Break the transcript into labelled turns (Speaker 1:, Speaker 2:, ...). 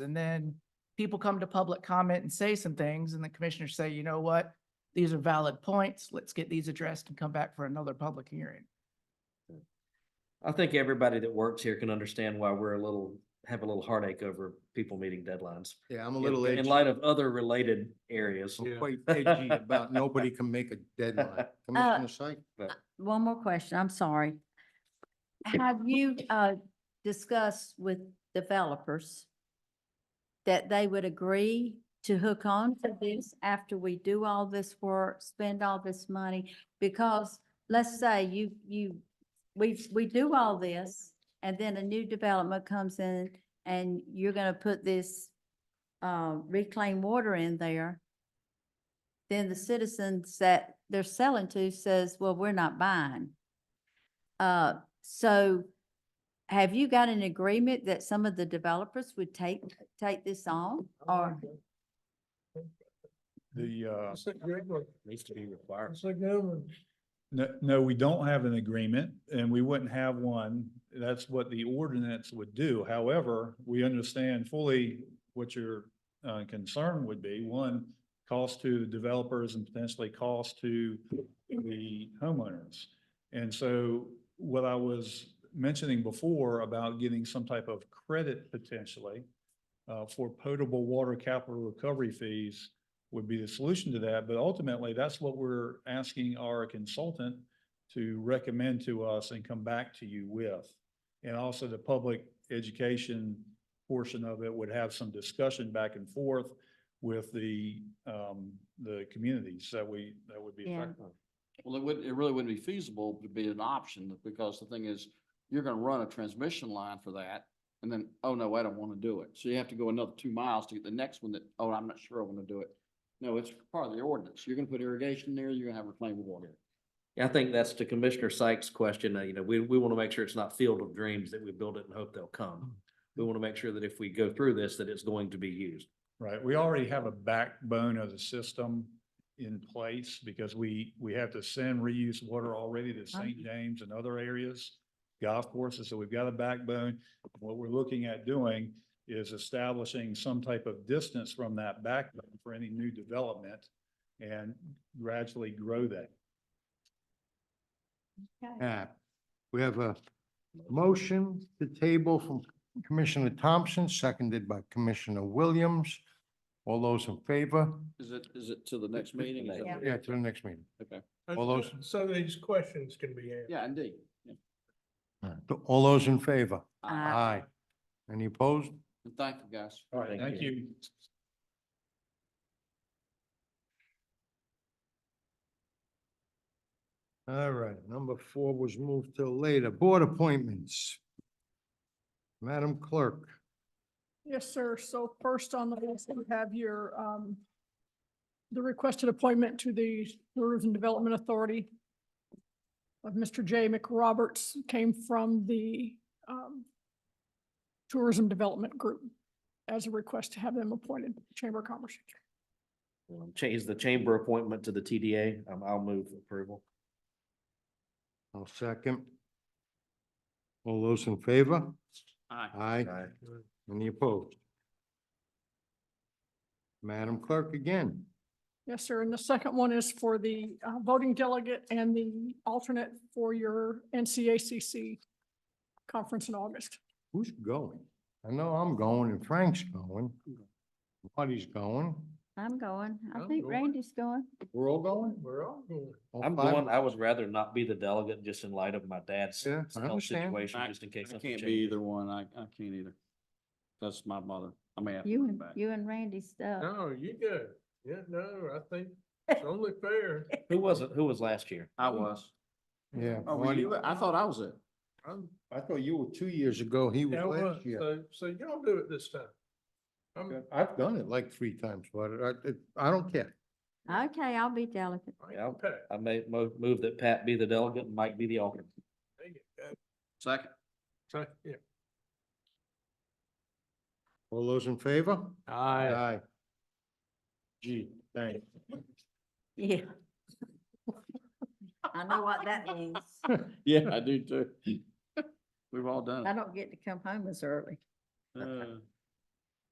Speaker 1: And then people come to public comment and say some things and the commissioners say, you know what? These are valid points. Let's get these addressed and come back for another public hearing.
Speaker 2: I think everybody that works here can understand why we're a little, have a little heartache over people meeting deadlines.
Speaker 3: Yeah, I'm a
Speaker 2: In-
Speaker 3: little
Speaker 2: In
Speaker 3: edgy,
Speaker 2: light of other related areas.
Speaker 3: I'm quite edgy about nobody can make a deadline. Commissioner Sykes?
Speaker 4: One more question, I'm sorry. Have you, uh, discussed with developers that they would agree to hook on to this after we do all this work, spend all this money? Because let's say you, you, we, we do all this and then a new development comes in and you're gonna put this, uh, reclaimed water in there then the citizens that they're selling to says, well, we're not buying. Uh, so have you got an agreement that some of the developers would take, take this on or?
Speaker 5: The, uh,
Speaker 6: That's a good one.
Speaker 2: Needs to be required.
Speaker 6: That's a good one.
Speaker 5: no, no, we don't have an agreement and we wouldn't have one. That's what the ordinance would do. However, we understand fully what your uh, concern would be. One, cost to developers and potentially cost to the homeowners. And so what I was mentioning before about getting some type of credit potentially uh, for potable water capital recovery fees would be the solution to that. But ultimately, that's what we're asking our consultant to recommend to us and come back to you with. And also the public education portion of it would have some discussion back and forth with the, um, the communities that we, that would be
Speaker 4: Yeah.
Speaker 5: affected.
Speaker 7: Well, it would, it really wouldn't be feasible to be an option because the thing is, you're gonna run a transmission line for that. And then, oh no, I don't wanna do it. So you have to go another two miles to get the next one that, oh, I'm not sure I wanna do it. No, it's part of the ordinance. You're gonna put irrigation there, you're gonna have reclaimed water.
Speaker 2: Yeah, I think that's to Commissioner Sykes' question. uh, You know, we, we want to make sure it's not field of dreams that we build it and hope they'll come. We want to make sure that if we go through this, that it's going to be used.
Speaker 5: Right, we already have a backbone of the system in place because we, we have to send reuse water already to St. James and other areas, golf courses, so we've got a backbone. What we're looking at doing is establishing some type of distance from that backbone for any new development and gradually grow that.
Speaker 3: Yeah. We have a motion to table from Commissioner Thompson, seconded by Commissioner Williams. All those in favor?
Speaker 7: Is it, is it to the next meeting? Is that-
Speaker 4: Yeah.
Speaker 3: Yeah, to the next meeting.
Speaker 7: Okay.
Speaker 3: All those-
Speaker 6: So these questions can be answered.
Speaker 7: Yeah, indeed. Yeah.
Speaker 3: All those in favor?
Speaker 4: Aye.
Speaker 3: Aye. Any opposed?
Speaker 7: And thank you, guys.
Speaker 5: All right, thank you.
Speaker 3: All right, number four was moved till later. Board appointments. Madam Clerk.
Speaker 8: Yes, sir. So first on the list, you have your, um, the requested appointment to the Tourism Development Authority of Mr. J. McRoberts came from the, um, Tourism Development Group as a request to have them appointed Chamber of Commerce.
Speaker 2: Um, Change the chamber appointment to the TDA. Um, I'll move approval.
Speaker 3: I'll second. All those in favor?
Speaker 7: Aye.
Speaker 3: Aye. Any opposed? Madam Clerk again.
Speaker 8: Yes, sir. And the second one is for the uh, voting delegate and the alternate for your NCACC conference in August.
Speaker 3: Who's going? I know I'm going and Frank's going. Marty's going.
Speaker 4: I'm going. I
Speaker 6: I'm
Speaker 4: think
Speaker 6: going.
Speaker 4: Randy's going.
Speaker 3: We're all going?
Speaker 6: We're all going.
Speaker 3: All
Speaker 2: I'm
Speaker 3: five?
Speaker 2: going, I would rather not be the delegate just in light of my dad's
Speaker 3: Yeah, I
Speaker 2: health
Speaker 3: understand.
Speaker 2: situation,
Speaker 7: I-
Speaker 2: just in case.
Speaker 7: I
Speaker 2: something
Speaker 7: can't be
Speaker 2: changes.
Speaker 7: either one. I, I can't either. That's my mother. I may have to
Speaker 4: You
Speaker 7: come
Speaker 4: and,
Speaker 7: back.
Speaker 4: you and Randy's stuff.
Speaker 6: No, you good. Yeah, no, I think it's only fair.
Speaker 2: Who wasn't, who was last year?
Speaker 7: I was.
Speaker 3: Yeah.
Speaker 7: Oh, were
Speaker 3: Marty-
Speaker 7: you? I thought I was it.
Speaker 6: I'm-
Speaker 3: I thought you were two years ago. He was
Speaker 6: Yeah, I was.
Speaker 3: last year.
Speaker 6: So, so y'all do it this time. I'm,
Speaker 3: I've done it like three times, but I, it- I don't care.
Speaker 4: Okay, I'll be delicate.
Speaker 6: I
Speaker 2: Yeah.
Speaker 6: can pay.
Speaker 2: I may mo- move that Pat be the delegate and Mike be the alternate.
Speaker 6: There you go.
Speaker 7: Second.
Speaker 6: So, yeah.
Speaker 3: All those in favor?
Speaker 6: Aye.
Speaker 3: Aye. Gee, thanks.
Speaker 4: Yeah. I know what that means.
Speaker 7: Yeah, I do too. We've all done
Speaker 4: I
Speaker 7: it.
Speaker 4: don't get to come home as early.
Speaker 7: Uh,